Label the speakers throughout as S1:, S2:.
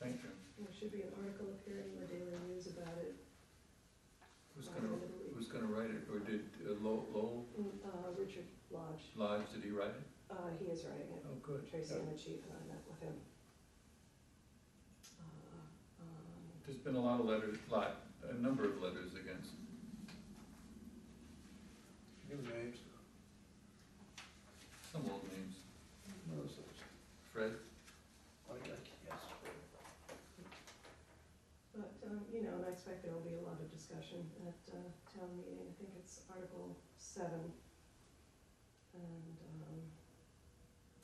S1: There should be an article appearing in the Daily News about it.
S2: Who's
S1: by the
S2: gonna,
S1: end of the week.
S2: who's gonna write it, or did uh, Lo- Lowell
S1: Mm, Uh, Richard Lodge,
S2: Lodge, did he write it?
S1: uh, he is writing it.
S2: Oh, good.
S1: Tracy
S2: Yeah.
S1: and the chief and I met with him. Uh, um,
S2: There's been a lot of letters, lot, a number of letters against,
S3: New names,
S2: some old names,
S3: no such,
S2: Fred,
S3: I like, yes.
S1: But, um, you know, and I expect there will be a lot of discussion at uh, town meeting. I think it's Article seven. And, um,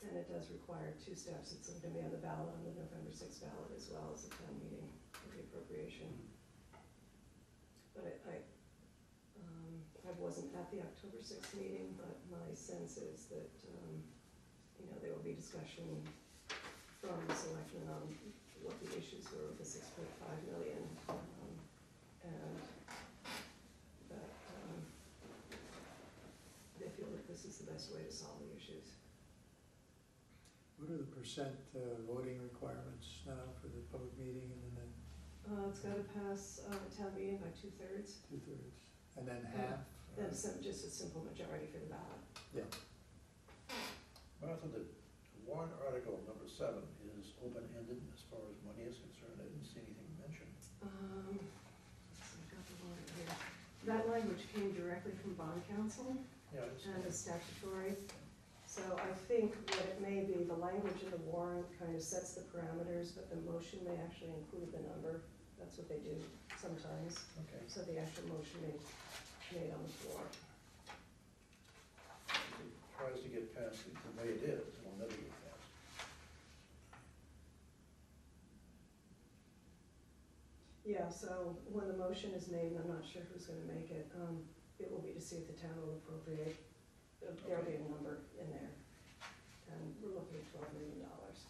S1: and it does require two steps. It's going to be on the ballot, on the November sixth ballot as well as the town meeting for the appropriation. But I- I, um, I wasn't at the October sixth meeting, but my sense is that, um, you know, there will be discussion from the selectmen on what the issues were with the six point five million. um, And that, um, they feel that this is the best way to solve the issues.
S4: What are the percent uh, voting requirements now for the public meeting and then
S1: Uh, it's gotta pass, uh, town meeting by two thirds,
S4: two thirds? And then half?
S1: then some, just a simple majority for the ballot.
S3: Martha, the warrant article number seven is open-ended as far as money is concerned, I didn't see anything mentioned.
S1: Um, let's see, I've got the warrant here. That language came directly from bond council.
S3: Yeah, I didn't see
S1: and
S3: it.
S1: is statutory. So I think what it may be, the language in the warrant kind of sets the parameters, but the motion may actually include the number. That's what they do sometimes,
S3: okay.
S1: so the actual motion may, made on the floor.
S3: If it Tries to get past it the way it is, it'll never get passed.
S1: Yeah, so when the motion is made, and I'm not sure who's gonna make it, um, it will be to see if the town will appropriate. There'll be a number in there, and we're looking at twelve million dollars.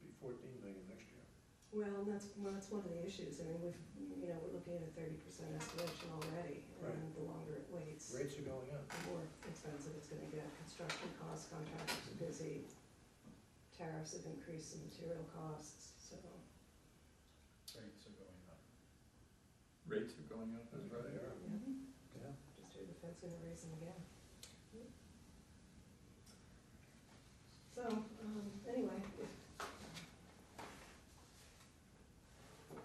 S3: It'll be fourteen million next year.
S1: Well, and that's, well, that's one of the issues, I mean, we've, you know, we're looking at a thirty percent escalation already, and
S3: Right.
S1: the longer it waits,
S3: Rates are going up.
S1: the more expensive it's gonna get, construction costs, contractors are busy, tariffs have increased the material costs, so,
S5: Rates are going up.
S2: rates are going up, is
S3: That's
S2: right.
S3: right, they are.
S4: Yeah.
S1: yeah, just heard the Fed's gonna raise them again. So, um, anyway, if,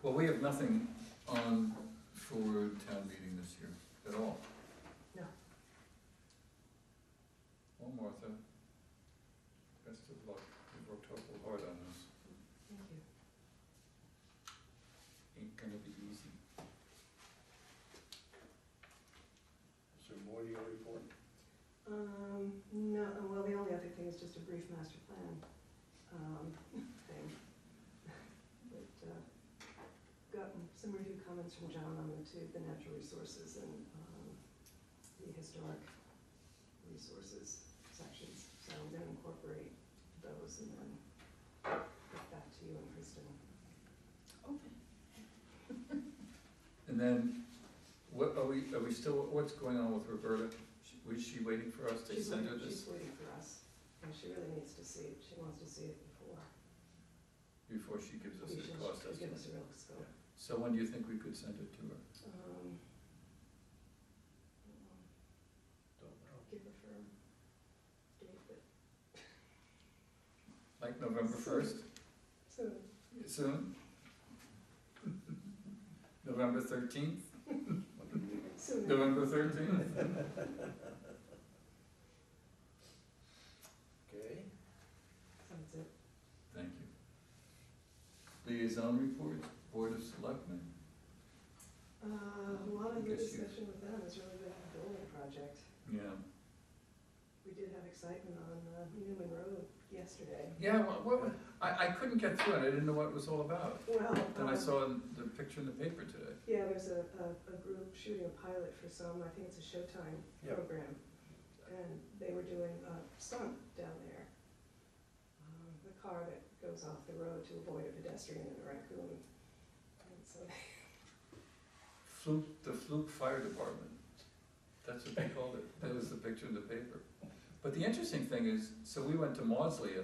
S2: Well, we have nothing on for town meeting this year at all.
S1: No.
S2: Well, Martha, best of luck. You've worked awful hard on this.
S1: thank you.
S2: Ain't gonna be easy.
S3: Is there more to your report?
S1: Um, no, uh, well, the only other thing is just a brief master plan, um, thing. But, uh, gotten some review comments from John on the two, the natural resources and, um, the historic resources sections. So I'm gonna incorporate those and then get back to you and Kristen.
S2: And then, what, are we, are we still, what's going on with Roberta? She- Was she waiting for us to
S1: She's
S2: send her
S1: waiting-
S2: this
S1: She's waiting for us, and she really needs to see it, she wants to see it before.
S2: before she gives us
S1: we
S2: a
S1: should-
S2: cost
S1: should Give
S2: estimate?
S1: us a real scope.
S2: So when do you think we could send it to her?
S1: Um,
S3: Don't know.
S1: give a firm date, but
S2: Like November first,
S1: soon.
S2: soon? November thirteenth,
S3: What do you think?
S1: Soon.
S2: November thirteenth?
S3: Okay,
S1: That's it.
S2: Thank you. Liaison reports, Board of Selectmen,
S1: Uh, a lot of the
S2: Guess you-
S1: discussion with them has really been the building project.
S2: yeah.
S1: We did have excitement on uh, Newman Road yesterday.
S2: Yeah, what, what, I, I couldn't get through it, I didn't know what it was all about.
S1: Well,
S2: Then I
S1: um,
S2: saw the picture in the paper today.
S1: yeah, there's a, a, a group shooting a pilot for some, I think it's a Showtime
S3: Yeah.
S1: program. And they were doing a stunt down there. Um, The car that goes off the road to avoid a pedestrian and a raccoon. And so
S2: Fluke, the Fluke Fire Department, that's what they called it, that was the picture in the paper. But the interesting thing is, so we went to Maudsley